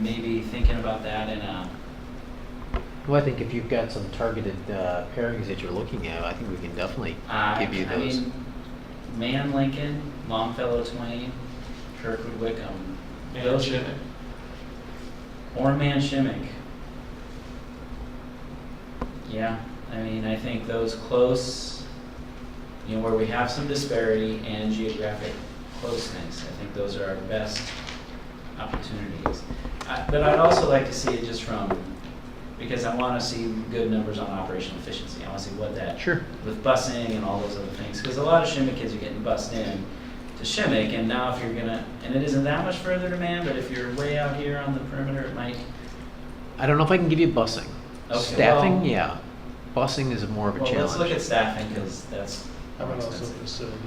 maybe thinking about that in a, Well, I think if you've got some targeted uh, pairings that you're looking at, I think we can definitely uh, give you I those. mean, Man Lincoln, Longfellow Twain, Kirkwood Wickham. And Those- Shimmick. Or Man Shimmick. Yeah, I mean, I think those close, you know, where we have some disparity and geographic closeness, I think those are our best opportunities. I- But I'd also like to see it just from, because I want to see good numbers on operational efficiency. I want to see what that Sure. with busing and all those other things. Because a lot of Shimmick kids are getting bused in to Shimmick, and now if you're gonna, and it isn't that much further to Man, but if you're way out here on the perimeter, it might. I don't know if I can give you busing. Okay, Staffing, well- yeah. Busing is more of a Well, let's look at challenge. staffing because that's How more about also expensive. facilities?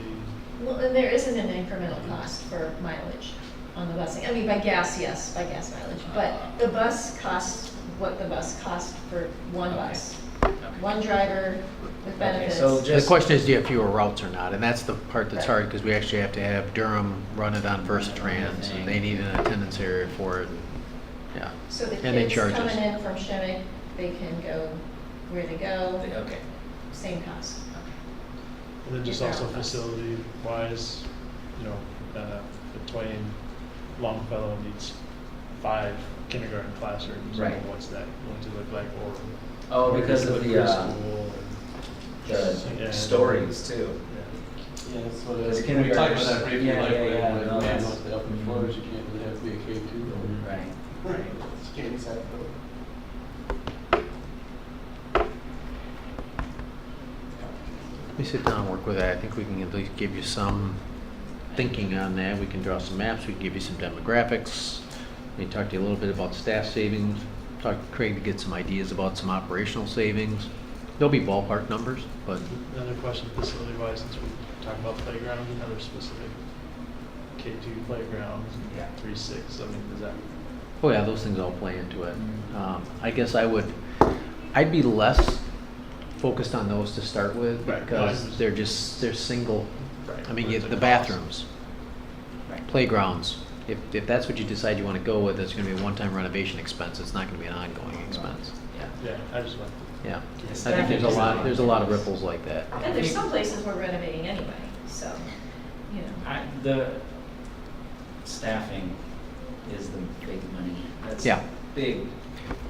Well, and there isn't an incremental cost for mileage on the busing. I mean, by gas, yes, by gas mileage, but the bus costs what the bus costs for one bus. Okay. One driver with Okay, benefits. so The just- question is, do you have fewer routes or not? And that's the part that's Right. hard because we actually have to have Durham run it on Run Versatrans the thing. and they need an attendance area for it. Yeah. So the and they kids charge us. coming in from Shemmack, they can go where to Okay, go, okay. same cost. And then just Yeah. also facility wise, you know, uh, between Longfellow needs five kindergarten classrooms. you know, Right. What's that going to look like or? Oh, where because does of it the, look uh, preschool the Yeah. stories too. and- yeah. Yeah, that's what, It's uh, we talked kindergarten. about that briefly, Yeah, like, yeah, when, yeah, when no, we that's- Mm-hmm. looked up in Florida, you can't really have to be a K two. Right. It's can't exactly. Let me sit down and work with that. I think we can at least give you some thinking on that. We can draw some maps, we can give you some demographics. We can talk to you a little bit about staff savings, talk to Craig to get some ideas about some operational savings. There'll be ballpark numbers, but Another question facility wise, since we talked about playgrounds, another specific K two playgrounds, Yeah. three, six, I mean, is that? Oh yeah, those things all play into it. Mm-hmm. Mhm. Um, I guess I would, I'd be less focused on those to start with Right, no, I because understand. they're just, they're single. Right, I mean, but you- the the cost. bathrooms, Right. playgrounds. If, if that's what you decide you want to go with, it's going to be a one-time renovation expense. It's not going to be an ongoing expense. Yeah. Yeah, I just want, Yeah. I Yes, think there's a definitely. lot, there's a lot of ripples like that. And there's some places we're renovating anyway, so, you know. I, the staffing is the big money. That's Yeah. Big.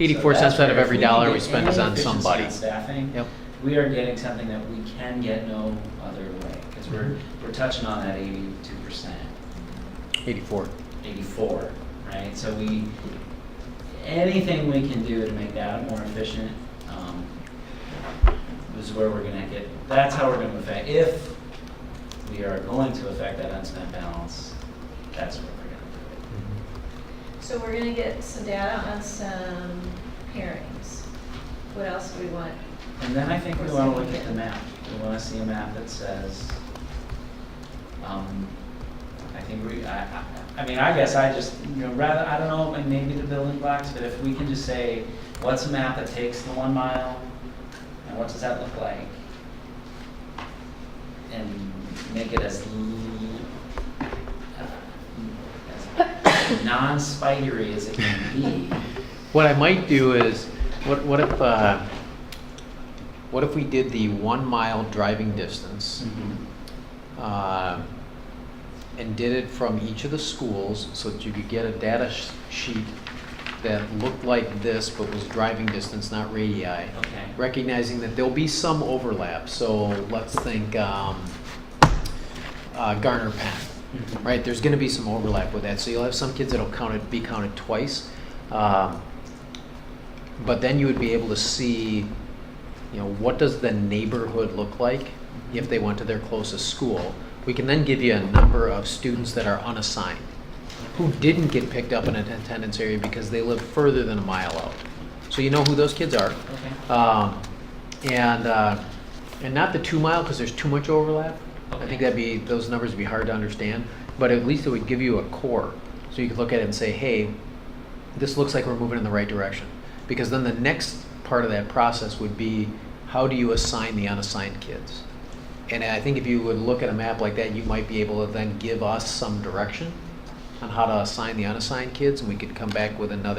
Eighty-four So that's cents out of where if every can dollar get we spend any is on efficiency somebody. Staffing. Yep. we are getting something that we can get no other way, because we're, we're touching on that eighty-two percent, Eighty-four. eighty-four, right? So we, anything we can do to make that more efficient, um, is where we're gonna get, that's how we're gonna affect, if we are going to affect that unspent balance, that's where we're gonna So we're gonna get some data on some pairings. What else do we want? do it. And then I think we wanna look at the map, we wanna see a map that says, Um, I think we, I, I, I mean, I guess I just, you know, rather, I don't know, and maybe the building blocks, but if we can just say, what's a map that takes the one mile? And what does that look like? And make it as, l- uh, as non-spidery as it can be. What I might do is, what, what if, uh, what if we did the one mile driving distance? uh, and did it from each of the schools so that you could get a data sh- sheet that looked like this but was driving distance, not radii. Okay, Recognizing that there'll be some overlap, so let's think um, uh, Garner Penn, Mhm. right? There's going to be some overlap with that, so you'll have some kids that'll count it, be counted twice. Um, but then you would be able to see, you know, what does the neighborhood look like if they went to their closest school? We can then give you a number of students that are unassigned, who didn't get picked up in an attendance area because they live further than a mile out. So you know who those kids are. okay, Um, and, uh, and not the two mile, because there's too much overlap. I Okay. think that'd be, those numbers would be hard to understand, but at least it would give you a core. So you could look at it and say, hey, this looks like we're moving in the right direction. Because then the next part of that process would be, how do you assign the unassigned kids? And I think if you would look at a map like that, you might be able to then give us some direction on how to assign the unassigned kids, and we could come back with another